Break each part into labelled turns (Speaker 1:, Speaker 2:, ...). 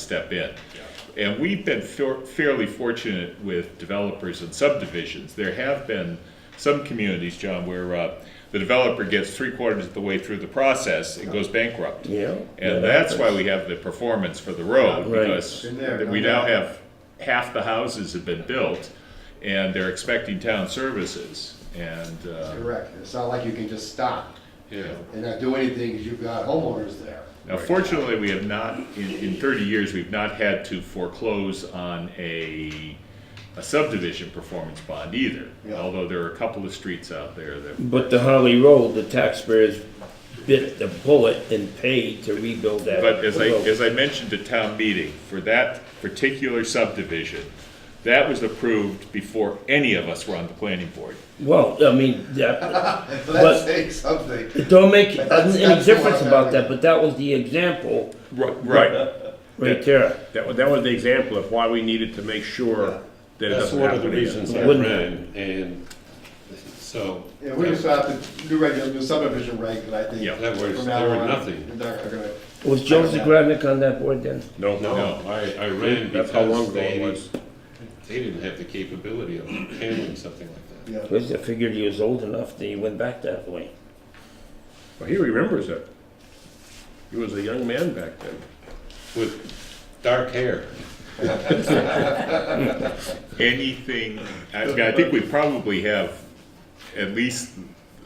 Speaker 1: step in. And we've been fair- fairly fortunate with developers and subdivisions. There have been some communities, John, where uh, the developer gets three quarters of the way through the process and goes bankrupt.
Speaker 2: Yeah, that
Speaker 1: And that's why
Speaker 2: happens.
Speaker 1: we have the performance for the road,
Speaker 2: Right.
Speaker 1: because
Speaker 3: Been there,
Speaker 1: we
Speaker 3: done
Speaker 1: now
Speaker 3: that.
Speaker 1: have, half the houses have been built, and they're expecting town services, and, uh,
Speaker 3: Correct, it's not like you can just stop
Speaker 1: Yeah.
Speaker 3: and not do anything, because you've got homeowners there.
Speaker 1: Now, fortunately, we have not, in, in thirty years, we've not had to foreclose on a, a subdivision performance bond either.
Speaker 3: Yeah.
Speaker 1: Although there are a couple of streets out there that,
Speaker 2: But the Holly Road, the taxpayers bit the bullet and paid to rebuild that.
Speaker 1: but as I,
Speaker 2: road.
Speaker 1: as I mentioned at town meeting, for that particular subdivision, that was approved before any of us were on the planning board.
Speaker 2: Well, I mean, that, But-
Speaker 3: So that's saying something.
Speaker 2: don't make
Speaker 3: That's-
Speaker 2: any
Speaker 3: that's the
Speaker 2: difference
Speaker 3: one I'm
Speaker 2: about
Speaker 3: having.
Speaker 2: that, but that was the example
Speaker 1: Right.
Speaker 2: right there.
Speaker 4: That was, that was the example of why we needed to make sure that it
Speaker 5: That's
Speaker 4: doesn't
Speaker 5: one of
Speaker 4: happen
Speaker 5: the
Speaker 4: again.
Speaker 5: reasons
Speaker 2: It
Speaker 5: I
Speaker 2: wouldn't
Speaker 5: ran, and so.
Speaker 3: Yeah, we just have to do regular, do subdivision reg, but I think.
Speaker 1: Yeah,
Speaker 5: that was-
Speaker 3: from
Speaker 5: there
Speaker 3: now
Speaker 5: were
Speaker 3: on,
Speaker 5: nothing.
Speaker 3: They're not gonna,
Speaker 2: Was Joseph Gradnick on that board then?
Speaker 4: No,
Speaker 5: No, I, I ran
Speaker 4: That's how long
Speaker 5: because
Speaker 4: ago it
Speaker 5: they,
Speaker 4: was.
Speaker 5: they didn't have the capability of handling something like that.
Speaker 3: yeah.
Speaker 2: Because I figured he was old enough that he went back that way.
Speaker 4: Well, he remembers it. He was a young man back then.
Speaker 5: With dark hair,
Speaker 1: Anything, I, I think we probably have at least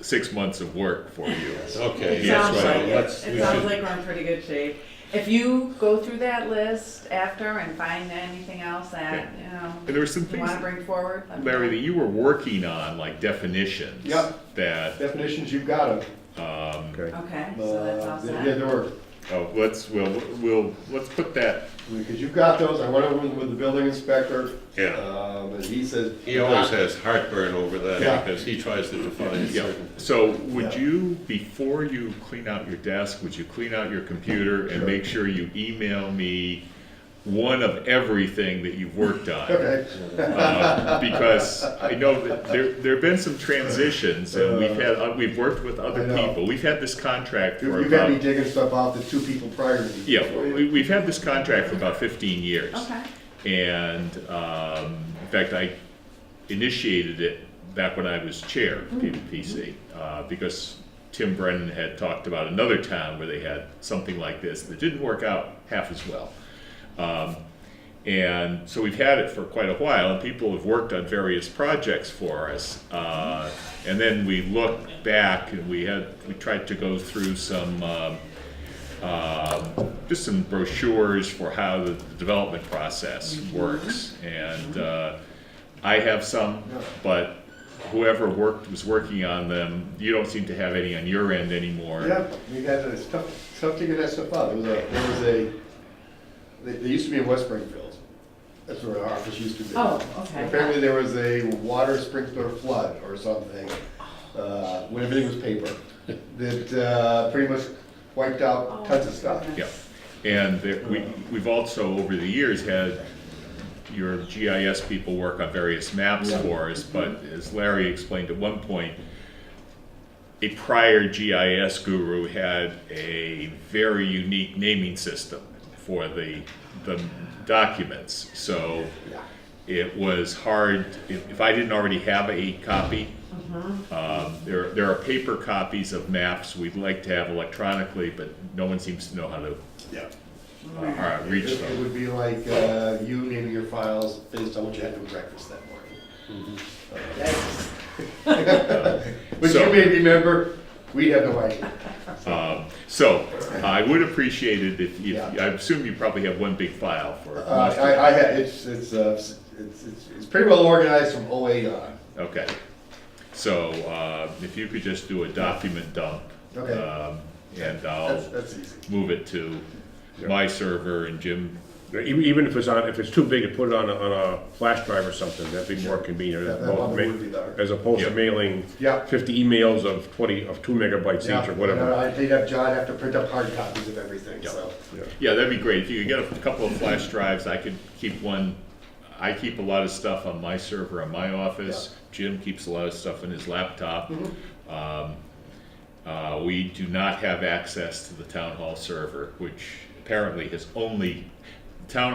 Speaker 1: six months of work for you.
Speaker 5: okay.
Speaker 6: It
Speaker 5: that's
Speaker 6: sounds
Speaker 5: right.
Speaker 6: like
Speaker 5: Let's-
Speaker 6: it,
Speaker 5: we
Speaker 6: it sounds
Speaker 5: should-
Speaker 6: like we're in pretty good shape. If you go through that list after and find anything else that, you
Speaker 1: And
Speaker 6: know,
Speaker 1: there were some
Speaker 6: you
Speaker 1: things,
Speaker 6: wanna bring forward. let me
Speaker 1: Larry,
Speaker 6: know.
Speaker 1: that you were working on, like definitions.
Speaker 3: Yep.
Speaker 1: That
Speaker 3: Definitions, you've got them.
Speaker 4: Okay.
Speaker 6: Okay, so that's all
Speaker 3: Uh, Yeah,
Speaker 6: set.
Speaker 3: there were,
Speaker 1: Oh, let's, we'll, we'll, let's put that,
Speaker 3: because you've got those, I went over them with the building inspector.
Speaker 5: Yeah.
Speaker 3: Um, and he says.
Speaker 5: He always has heartburn over
Speaker 3: Yeah.
Speaker 5: that because he tries to define
Speaker 1: yeah.
Speaker 5: certain.
Speaker 1: So would
Speaker 3: Yeah.
Speaker 1: you, before you clean out your desk, would you clean out your computer and make sure you email me one of everything that you've worked on?
Speaker 3: Okay,
Speaker 1: Uh, Because I know that there, there have been some transitions and we've had, uh, we've worked with other
Speaker 3: I know.
Speaker 1: people. We've had this contract
Speaker 3: you
Speaker 1: for
Speaker 3: you got me
Speaker 1: about,
Speaker 3: digging stuff off the two people prior to you.
Speaker 1: yeah, we, we've had this contract for about fifteen years.
Speaker 6: Okay,
Speaker 1: And um, in fact, I initiated it back when I was chair of PVPC uh, because Tim Brennan had talked about another town where they had something like this that didn't work out half as well. Um, and so we've had it for quite a while, and people have worked on various projects for us. Uh, and then we looked back, and we had we tried to go through some. Um, um, just some brochures for how the the development process works. And uh, I have some, but whoever worked, was working on them, you don't seem to have any on your end anymore.
Speaker 3: Yeah, we had, it's tough, it's tough to get that stuff out. There was a, there was a, they, they used to be in West Springfield. That's where our office used to be.
Speaker 6: Oh, okay.
Speaker 3: Apparently there was a water sprinkler flood or something, uh, when everything was paper, that, uh, pretty much wiped
Speaker 6: Oh,
Speaker 3: out tons of stuff.
Speaker 1: Yeah, and there- we, we've also, over the years, had your GIS people work on various maps for us, but as Larry explained at one point, a prior GIS guru had a very unique naming system for the, the documents, so it was hard, if, if I didn't already have a copy, um, There, there are paper copies of maps we'd like to have electronically, but no one seems to know how to
Speaker 3: Yeah.
Speaker 1: uh,
Speaker 3: It
Speaker 1: reach
Speaker 3: it
Speaker 1: them.
Speaker 3: would be like, uh, you naming your files based on what you had for breakfast that morning.
Speaker 6: Mm-hmm.
Speaker 3: Uh,
Speaker 6: Yikes.
Speaker 3: But you
Speaker 1: So-
Speaker 3: may remember, we had no idea.
Speaker 1: Um, So I would appreciate it if, if,
Speaker 3: Yeah.
Speaker 1: I assume you probably have one big file for.
Speaker 3: Uh,
Speaker 1: most of-
Speaker 3: I, I had, it's, it's, uh, it's, it's, it's pretty well organized from OA on.
Speaker 1: Okay. So uh, if you could just do a document dump.
Speaker 3: Okay.
Speaker 1: um, And
Speaker 3: That's,
Speaker 1: I'll
Speaker 3: that's easy.
Speaker 1: move it to my server and Jim,
Speaker 4: Even even if it's on, if it's too big, to put it on a, on a flash drive or something, that'd be more convenient.
Speaker 3: Yeah,
Speaker 4: as
Speaker 3: that
Speaker 4: opposed
Speaker 3: probably
Speaker 4: to
Speaker 3: would be
Speaker 4: ma-
Speaker 3: better.
Speaker 4: As opposed to
Speaker 1: Yeah.
Speaker 4: mailing
Speaker 3: Yeah.
Speaker 4: fifty emails of twenty, of two megabytes each or
Speaker 3: Yeah,
Speaker 4: whatever.
Speaker 3: I think that John have to print up hard copies of everything, so.
Speaker 1: Yeah, that'd be great. If you could get a couple of flash drives, I could keep one. I keep a lot of stuff on my server in my office. Jim keeps a lot of stuff on his laptop. Um, uh, we do not have access to the town hall server, which apparently has only, town